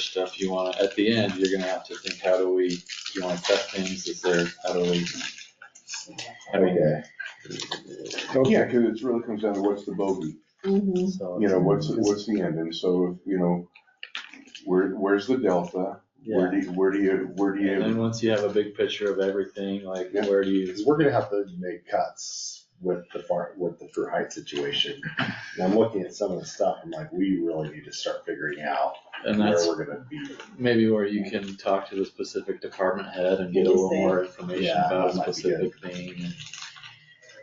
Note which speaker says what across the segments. Speaker 1: stuff you wanna, at the end, you're gonna have to think, how do we, do you wanna cut things, is there, how do we? How do we,
Speaker 2: Okay.
Speaker 3: Yeah, because it really comes down to what's the bogey,
Speaker 4: Mhm.
Speaker 1: so.
Speaker 3: you know, what's, what's the end, and so, you know, where, where's the delta? Where
Speaker 1: Yeah,
Speaker 3: do, you- where do you, where do
Speaker 1: and
Speaker 3: you,
Speaker 1: then once you have a big picture of everything, like,
Speaker 3: Yeah.
Speaker 1: where do you,
Speaker 2: Because we're gonna have to make cuts with the farm, with the Fruit Heights situation. And I'm looking at some of the stuff, I'm like, we really need to start figuring out
Speaker 1: and
Speaker 2: where
Speaker 1: that's
Speaker 2: we're gonna be.
Speaker 1: maybe where you can talk to the specific department head and get a little more information
Speaker 2: Yeah,
Speaker 1: about a
Speaker 2: that might be
Speaker 1: specific thing and.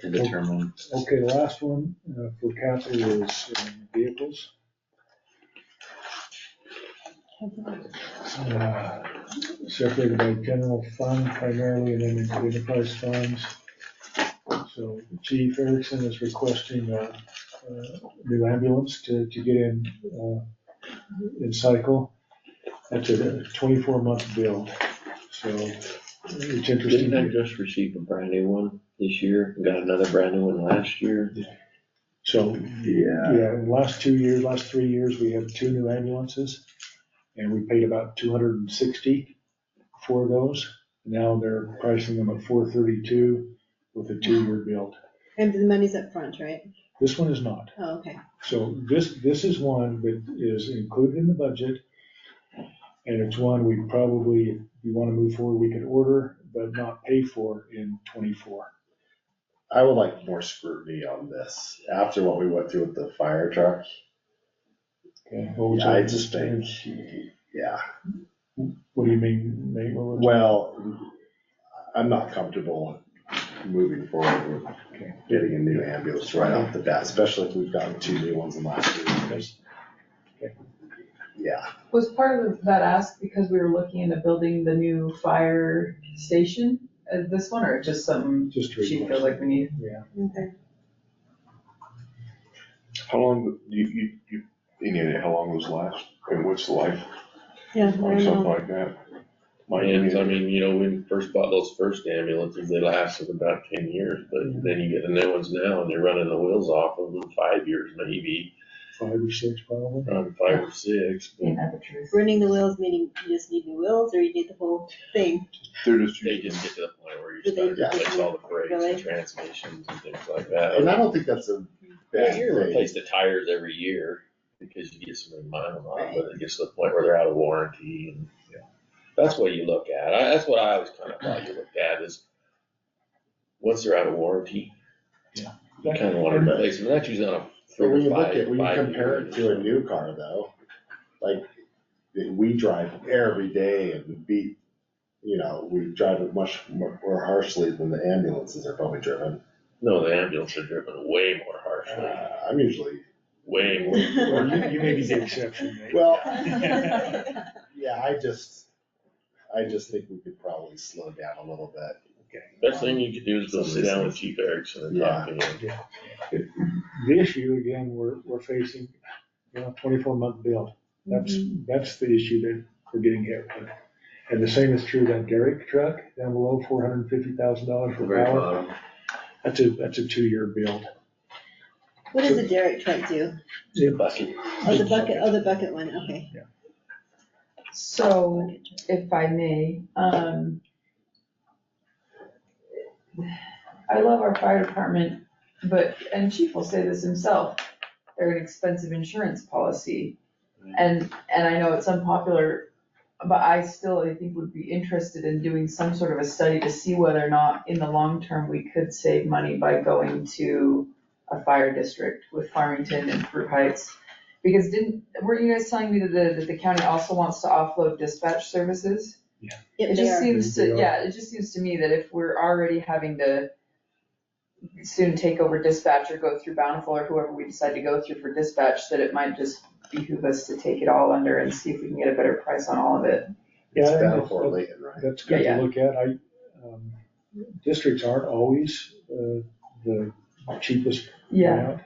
Speaker 1: And determine,
Speaker 5: Okay, last one uh, for capital is um, vehicles. Uh, Separated by general fund primarily and then into enterprise funds. So Chief Erickson is requesting a new ambulance to, to get in, uh, in cycle. That's a twenty-four month bill, so it's interesting.
Speaker 6: Didn't I just receive a brand new one this year? Got another brand new one last year.
Speaker 5: So
Speaker 2: Yeah.
Speaker 5: Yeah, in the last two years, last three years, we have two new ambulances, and we paid about two hundred and sixty for those. Now they're pricing them at four thirty-two with a two-year build.
Speaker 4: And the money's up front, right?
Speaker 5: This one is not.
Speaker 4: Oh, okay.
Speaker 5: So this, this is one that is included in the budget, and it's one we probably, if we want to move forward, we could order, but not pay for in twenty-four.
Speaker 2: I would like more scrutiny on this. After what we went through with the fire truck,
Speaker 5: Okay, what was
Speaker 2: I
Speaker 5: that?
Speaker 2: just think, yeah,
Speaker 5: What do you mean, Nate? What was-
Speaker 2: well, I'm not comfortable moving forward with
Speaker 5: Okay.
Speaker 2: getting a new ambulance right off the bat, especially if we've gotten two new ones in the last two years. Yeah,
Speaker 7: Was part of that ask because we were looking into building the new fire station, uh, this one, or just something
Speaker 5: Just a
Speaker 7: she feels
Speaker 5: request.
Speaker 7: like we need?
Speaker 4: Okay.
Speaker 3: how long, you, you, you, you know, how long those last, and what's the life
Speaker 4: Yeah, I
Speaker 3: on
Speaker 4: don't
Speaker 3: something
Speaker 4: know.
Speaker 3: like that? My
Speaker 6: And I
Speaker 3: opinion,
Speaker 6: mean, you know, when we first bought those first ambulances, they lasted about ten years, but then you get the new ones now and they're running the wheels off of them five years maybe,
Speaker 5: Five or six probably.
Speaker 6: um, five or six. but
Speaker 7: the truth.
Speaker 4: Running the wheels, meaning you just need new wheels or you need the whole thing?
Speaker 3: They're just,
Speaker 6: They
Speaker 3: usually-
Speaker 6: just get to the point where you
Speaker 4: Do they-
Speaker 6: start to replace all the brakes
Speaker 4: Really?
Speaker 6: and transmissions and things like that.
Speaker 2: and I don't think that's a bad
Speaker 6: Yeah, you
Speaker 2: thing.
Speaker 6: replace the tires every year because you get so many miles on
Speaker 4: Right.
Speaker 6: them, but it gets to the point where they're out of warranty and, you know, that's what you look at. I, that's what I always kind of thought you looked at is once they're out of warranty, you kind of want to replace them. And That's usually on a
Speaker 2: But when
Speaker 6: three
Speaker 2: you
Speaker 6: to
Speaker 2: look
Speaker 6: five,
Speaker 2: at, when you
Speaker 6: five
Speaker 2: compare it to
Speaker 6: years.
Speaker 2: a new car though, like, that we drive every day and we beat, you know, we drive it much more more harshly than the ambulances are probably driven.
Speaker 6: No, the ambulance are driven way more harshly,
Speaker 2: Uh, I'm usually,
Speaker 6: way more.
Speaker 5: Well, you, you may be the exception, Nate.
Speaker 2: well, yeah, I just, I just think we could probably slow down a little bit.
Speaker 6: Best thing you could do is go sit down with Chief Erickson and talk to him.
Speaker 5: The issue again, we're, we're facing, you know, twenty-four month build. That's, that's the issue that we're getting hit with. And the same is true that Derek truck down below, four hundred and fifty thousand dollars
Speaker 1: the
Speaker 5: for
Speaker 1: very
Speaker 5: power.
Speaker 1: bottom,
Speaker 5: That's a, that's a two-year build.
Speaker 4: What does a derrick truck do?
Speaker 6: Bucket.
Speaker 4: Oh, the bucket, oh, the bucket one, okay.
Speaker 7: So, if I may, um, I love our fire department, but, and chief will say this himself, they're an expensive insurance policy. And, and I know it's unpopular, but I still, I think would be interested in doing some sort of a study to see whether or not in the long term, we could save money by going to a fire district with Farmington and Fruit Heights. Because didn't, were you guys telling me that the, that the county also wants to offload dispatch services?
Speaker 4: If
Speaker 7: It
Speaker 4: they
Speaker 7: just
Speaker 4: are,
Speaker 7: seems
Speaker 5: They
Speaker 7: to,
Speaker 5: are.
Speaker 7: yeah, it just seems to me that if we're already having to soon take over dispatch or go through Bountiful or whoever we decide to go through for dispatch, that it might just behoove us to take it all under and see if we can get a better price on all of it.
Speaker 5: Yeah,
Speaker 2: It's
Speaker 5: I think
Speaker 2: battle
Speaker 5: that's-
Speaker 2: for Layton, right?
Speaker 5: That's good to
Speaker 7: Yeah, yeah.
Speaker 5: look at. I, um, districts aren't always, uh, the cheapest. route.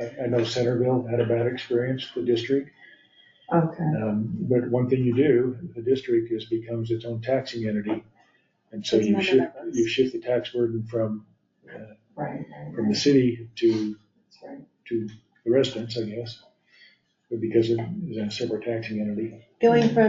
Speaker 5: I, I know Centerville had a bad experience, the district.
Speaker 7: okay.
Speaker 5: Um, But one thing you do, the district is, becomes its own taxing entity. And so
Speaker 4: It's
Speaker 5: you
Speaker 4: not
Speaker 5: shift,
Speaker 4: about us.
Speaker 5: you shift the tax burden from, uh,
Speaker 7: Right,
Speaker 5: from the city to,
Speaker 7: that's right.
Speaker 5: to the residents, I guess. But Because it is a separate taxing entity.
Speaker 4: Going from